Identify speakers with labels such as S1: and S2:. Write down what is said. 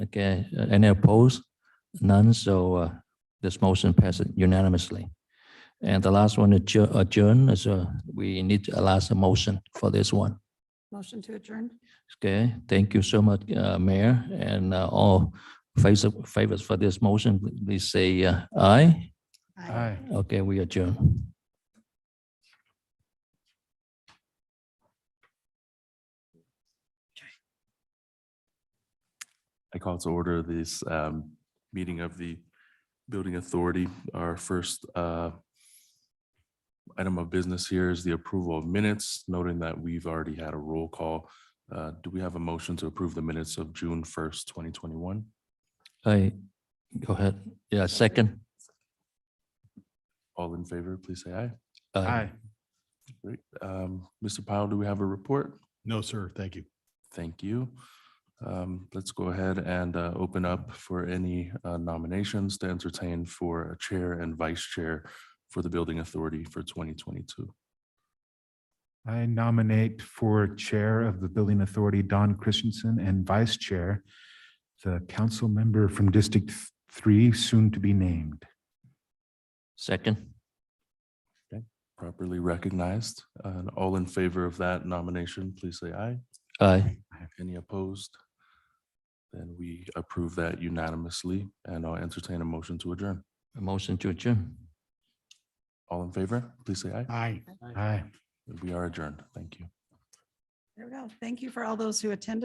S1: Okay, uh, any opposed? None, so uh, this motion passes unanimously. And the last one, adjour- adjourn, is uh, we need a last motion for this one.
S2: Motion to adjourn?
S1: Okay, thank you so much, uh, Mayor, and uh, all favors favors for this motion, please say uh, aye.
S3: Aye.
S1: Okay, we adjourn.
S4: I call to order this um, meeting of the Building Authority. Our first uh, item of business here is the approval of minutes, noting that we've already had a roll call. Uh, Do we have a motion to approve the minutes of June 1st, 2021?
S1: I, go ahead. Yeah, second.
S4: All in favor, please say aye.
S1: Aye.
S4: Great. Um, Mr. Powell, do we have a report?
S3: No, sir. Thank you.
S4: Thank you. Um, Let's go ahead and uh, open up for any uh, nominations to entertain for a chair and vice chair for the Building Authority for 2022.
S5: I nominate for Chair of the Building Authority, Don Christensen, and Vice Chair, the council member from District Th- Three, soon to be named.
S1: Second.
S4: Properly recognized, and all in favor of that nomination, please say aye.
S1: Aye.
S4: Any opposed? Then we approve that unanimously, and I'll entertain a motion to adjourn.
S1: A Motion to adjourn.
S4: All in favor, please say aye.
S3: Aye.
S5: Aye.
S4: We are adjourned. Thank you.
S2: There we go. Thank you for all those who attended.